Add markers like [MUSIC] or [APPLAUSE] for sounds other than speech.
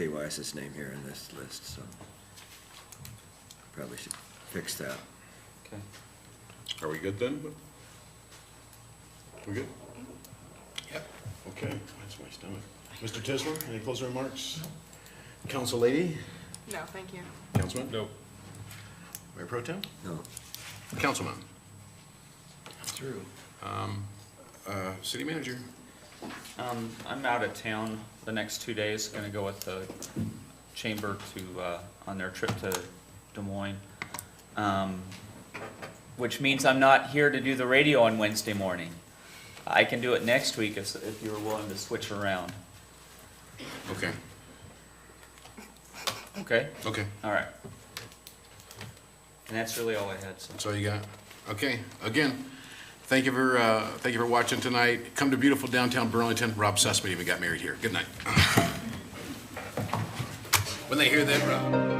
Jay Weiss's name here in this list, so probably should fix that. Okay. Are we good then? We good? Yep. Okay, that's my stomach. Mr. Tisler, any closing remarks? Council lady? No, thank you. Councilman? No. Mayor Pro Tem? No, Councilman? Through. Uh, city manager? Um, I'm out of town the next two days, gonna go with the chamber to, uh, on their trip to Des Moines. Um, which means I'm not here to do the radio on Wednesday morning. I can do it next week if, if you're willing to switch around. Okay, Okay, okay, all right. And that's really all I had, so. that's all you got? Okay, again, thank you for, uh, thank you for watching tonight. Come to beautiful downtown Burlington. Rob [LAUGHS] Sussman even got married here. Good night. When they hear that, Rob.